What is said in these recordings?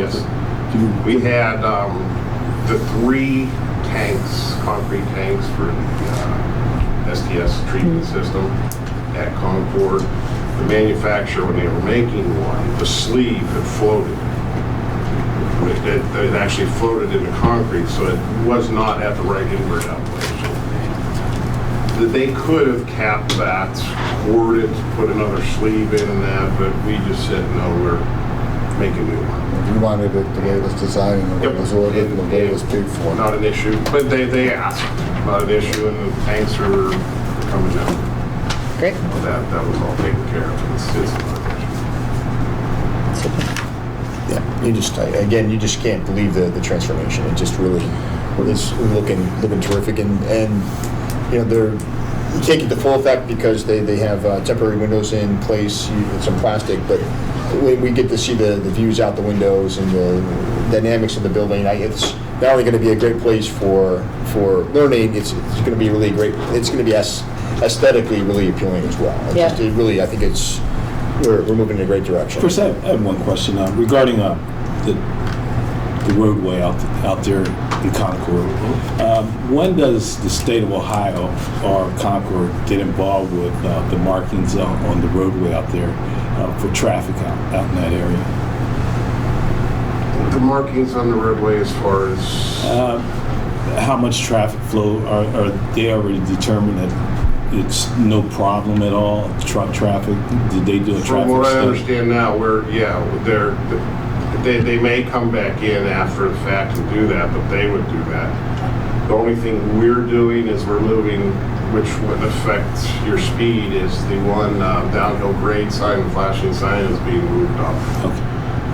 Yes. We had um, the three tanks, concrete tanks for the uh, STS treatment system at Concord. The manufacturer, when they were making one, the sleeve had floated. It- It it actually floated in the concrete, so it was not at the right inward elevation that they could have capped that, poured it, put another sleeve in and that, but we just said, no, we're making new one. We wanted it the way it was designed, and the way it was ordered, and the way it was paid for. Not an issue, but they, they asked, not an issue, and the tanks are coming down. Great. That, that was all taken care of. It's, it's not an issue. Yeah, you just, I- again, you just can't believe the, the transformation. It just really is looking, looking terrific. And, and, you know, they're, you can't get the full effect because they, they have uh, temporary windows in place, you- it's some plastic, but we, we get to see the, the views out the windows and the dynamics of the building. I, it's not only going to be a great place for, for learning, it's, it's going to be really great, it's going to be as- aesthetically really appealing as well. It's Yeah. just- It really, I think it's, we're, we're moving in a great direction. First, I have, I have one question uh, regarding uh, the, the roadway out, out there in Concord. Um, when does the state of Ohio or Concord get involved with uh, the markings on, on the roadway out there uh, for traffic out, out in that area? The markings on the roadway as far as, Um, how much traffic flow are, are they already determined that it's no problem at all? Truck traffic? Did they do a from traffic what I study? understand now, we're, yeah, they're, they, they may come back in after the fact and do that, but they would do that. The only thing we're doing is we're moving, which would affect your speed, is the one uh, downhill grade sign, the flashing sign is being moved up. Okay,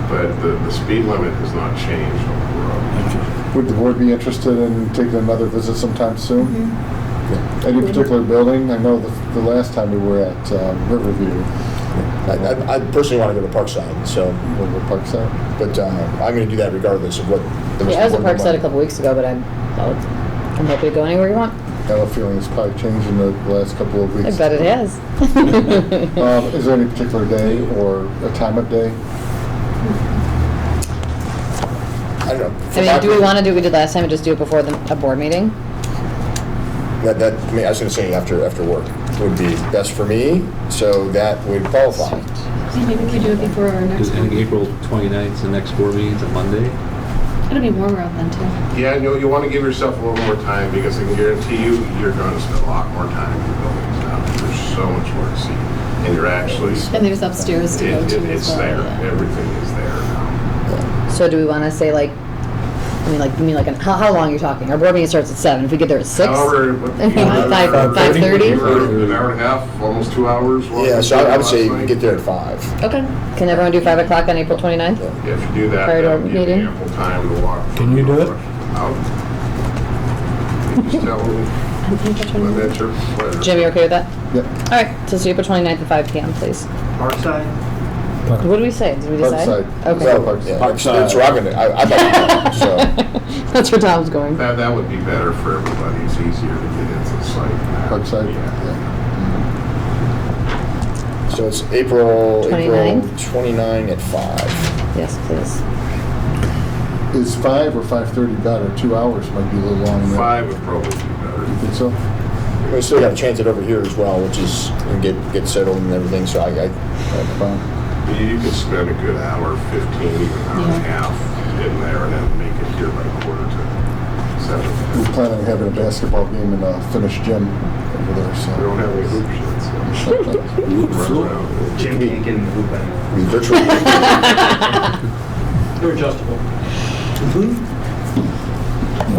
But the, the speed limit has not changed on the road. okay. Would the board be interested in taking another visit sometime soon? Yeah. Any particular building? I know the, the last time we were at uh, Riverview, I, I- I personally want to go to Parkside, so, over Parkside. but uh, I'm going to do that regardless of what. the Yeah, I rest of was at the board Parkside a might- couple weeks ago, but I'm, I'll- I'm happy to go anywhere you want. I have a feeling it's probably changed in the last couple of I weeks. bet it has. Um, Is there any particular day or a time of day? I don't know. I mean, do we want to do what we did last time and just do it before the, a board meeting? That, that, I mean, I was going to say after, after work would be best for me, so that would qualify. So Maybe we could do it before our next Because I think one. April 29th, the next board meeting's a Monday. It'll be warmer out then too. Yeah, you, you want to give yourself a little more time because I can guarantee you, you're going to spend a lot more time in the buildings now. There's so much more to see, and you're actually, And there's upstairs to go it- to it- as it's there. well. yeah. Everything is there now. So do we want to say like, I mean, like, you mean like, an- how, how long are you talking? Our board meeting starts at seven. If we get there at six? However, what- Five- you were- Uh, five- I think 5:30? you were An hour and a half, almost two hours. wasn't Yeah, it, so I I would say last night? get there at five. Okay. Can everyone do five o'clock on April 29th? Yeah, If you do that, Prior to our that'll give meeting? you ample time to walk. Can you do it? I'll- you Just tell me, I think that's when what it that's your pleasure. Jim, you okay with that? Yep. All right, so it's April 29th at five PM, please. Parkside? What did we say? Did we decide? Parkside. Okay. So- Yeah, that's- That's where I'm going to, I'd like to go, so. That's where Tom's going. That, that would be better for everybody. It's easier to get into the site. Parkside? Yeah. So it's April, April 29? 29 at five. Yes, please. Is five or 5:30 better? Two hours might be a little long. there. Five would probably be better. Think so? We still got to chance it over here as well, which is, and get, get settled and everything, so I, I, Fine. You could spend a good hour, 15, even an hour and a Yeah. half in there and then make it here by quarter to We seven. plan on having a basketball game in a finished gym over there, We don't so. have any hoops yet, so. Wood Run floor? around. Jim can't get in the hoop anymore. we virtually. They're adjustable. We'll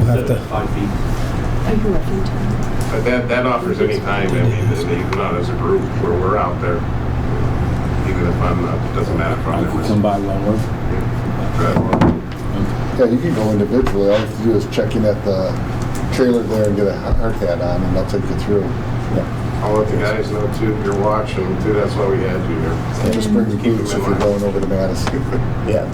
have Instead to. of Five feet. was. Are you working too? But that, that offers any time, I mean, that they- not as a group, where we're out there. Even if I'm not, doesn't matter if I I'm could come by while I work. there. Yeah, you can go individually. All you have to do is check in at the trailer there and get a hard hat on, and they'll take you through. I'll let the guys know too, if you're watching, too, that's why we had you here. And just bring the boots if you're going over to Madison. Yeah.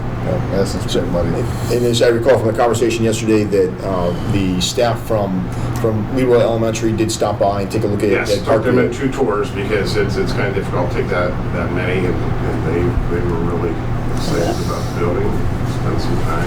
Madison's pretty muddy. Um, And as I recall from the conversation yesterday, that uh, the staff from, from Leroy Elementary did stop by and take a look at. Yes, at took Parkview. them in two tours because it's, it's kind of difficult to take that, that many and and they, they were really excited about the building. expensive.